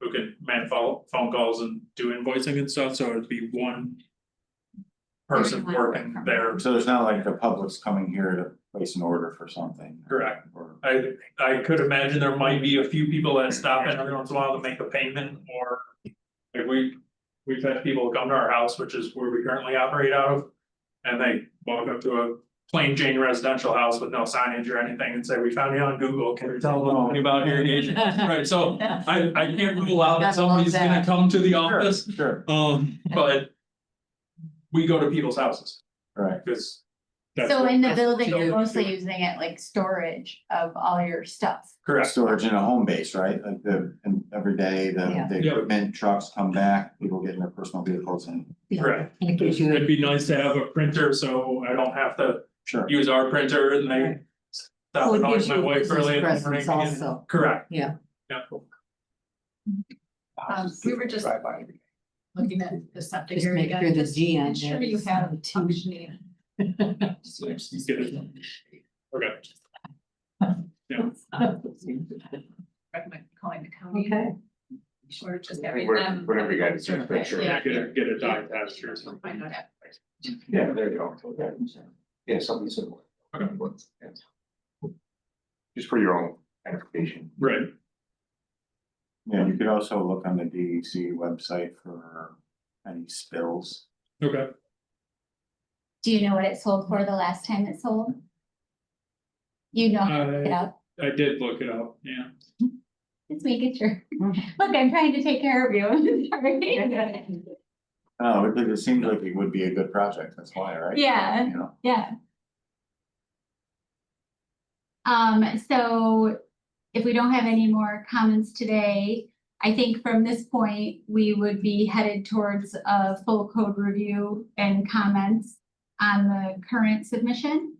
who can make phone phone calls and do invoicing and stuff, so it'd be one. Person Everyone work working from there, So there's not like the public's coming here to place an order for something. Correct. Or, I I could imagine there might be a few people that stop in every once in a while to make a payment or. Like we, we've had people come to our house, which is where we currently operate out of. And they walk up to a plain Jane residential house with no signage or anything and say, we found you on Google, can you tell them about your agent? Right, so I I can't rule out that Gotta love somebody's gonna that. come to the office, sure, um, but. We go to people's houses, right, cause. that's So what- in the that's what building, we you're always do. mostly using it like storage of all your stuff. Correct, storage in a home base, right, like the, and every day, the, Yeah. the Yeah. equipment trucks come back, people get in their personal vehicles and, correct, In case you, it'd be nice to have a printer, so I don't have to sure. use our printer and they. Stop Well, it and always gives my you a wife business early in the presence morning again. also. correct. Yeah. Yeah, Um, we were just looking at the septic Just area make sure again, the just G on make sure there you is have on a the T. functioning. you get it. okay, Recommend calling the county. okay, Or just Yeah, having whatever- them. whatever you guys do, make sure. Yeah, get a- get a dog test or something. Find out. Yeah, there you go. Yeah, something similar. Okay. Yeah. Just for your own identification. right, Yeah, you could also look on the DEC website for any spills. okay, Do you know what it sold for the last time it sold? You know, it I up, I did look it up, yeah, it's making sure. Look, I'm trying to take care of you. Sorry. Oh, it, it seems like it would be a good project, that's why, right? Yeah. You know, Yeah. Um, so if we don't have any more comments today, I think from this point, we would be headed towards a full code review and comments on the current submission.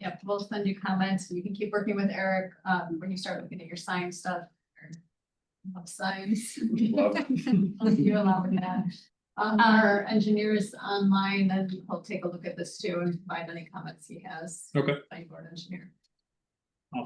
Yep, we'll send you comments, you can keep working with Eric, um, when you start looking at your sign stuff. or Love signs. Love. You allow that. Um, our engineer is online, and he'll take a look at this too and find any comments he has. Okay. By board engineer.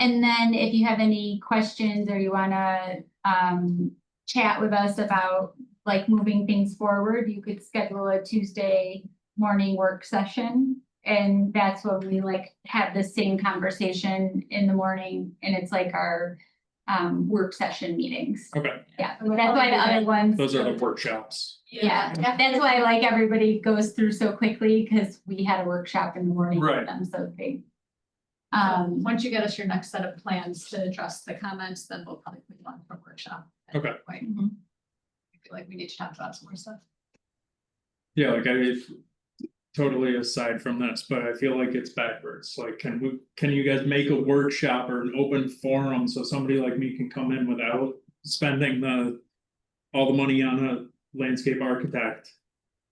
And then if you have any questions or you wanna, um, chat with us about like moving things forward, you could schedule a Tuesday morning work session. And that's when we like have the same conversation in the morning and it's like our, um, work session meetings. okay, Yeah, that's why the other ones. those are the workshops, Yeah, that's why like everybody goes through so quickly, cause we had a workshop in the morning for Right. them, so they. Um, Um, once you get us your next set of plans to address the comments, then we'll probably put you on for a workshop. at that point. Mhm. I feel like we need to talk about some more stuff. yeah, like I. Totally aside from this, but I feel like it's backwards, like, can we, can you guys make a workshop or an open forum so somebody like me can come in without spending the. All the money on a landscape architect.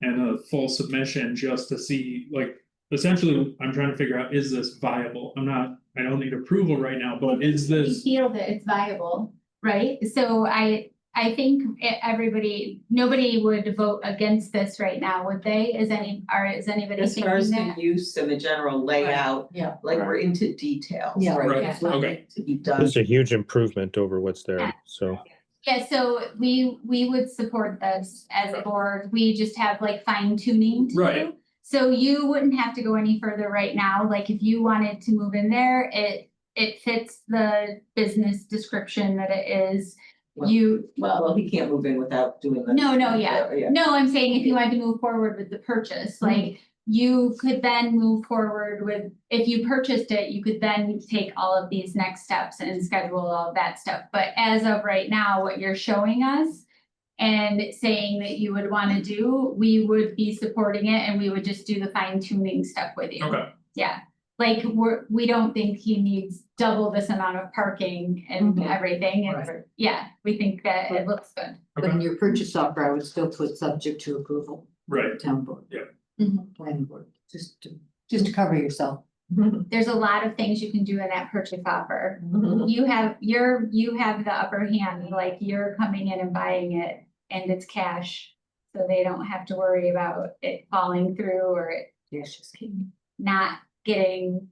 And a full submission just to see, like, essentially, I'm trying to figure out, is this viable? I'm not, I don't need approval right now, but is we this? feel that it's viable, right? So I, I think e- everybody, nobody would vote against this right now, would they? Is any, are, is anybody As far as thinking the that? use and the general layout, yeah. like we're Right. into details, Yeah. right? Right, It's what okay. To be done. It's a huge improvement over what's there, so. Yeah, so we, we would support this as a board. We just have like fine tuning to Right. do. So you wouldn't have to go any further right now. Like if you wanted to move in there, it, it fits the business description that it is. Well- You, Well, he can't move in without doing the. No, no, yeah. Yeah. No, I'm saying if you wanted to move forward with the purchase, like you could then move forward with, if you purchased it, you could then take all of these next steps and schedule all of that stuff. But as of right now, what you're showing us and saying that you would want to do, we would be supporting it and we would just do the fine tuning stuff with you. Okay, Yeah, like we're, we don't think he needs double this amount of parking and Mhm. everything. And Right. we're- yeah, we think that it looks good. But in your purchase offer, I would still put subject to approval, right, of town board. Mm-hmm. Yeah. Mhm. Planning board, just to, just to cover yourself. there's a lot of things you can do in that purchase offer. Mhm. You have, you're, you have the upper hand, like you're coming in and buying it and it's cash. So they don't have to worry about it falling through or it Yes, just kidding. not getting,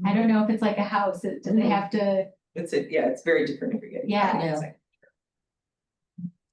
Mm-hmm. I don't know if it's like a house, it- do they have to, It's a, Mm-hmm. yeah, it's very different if you're getting. Yeah. financing.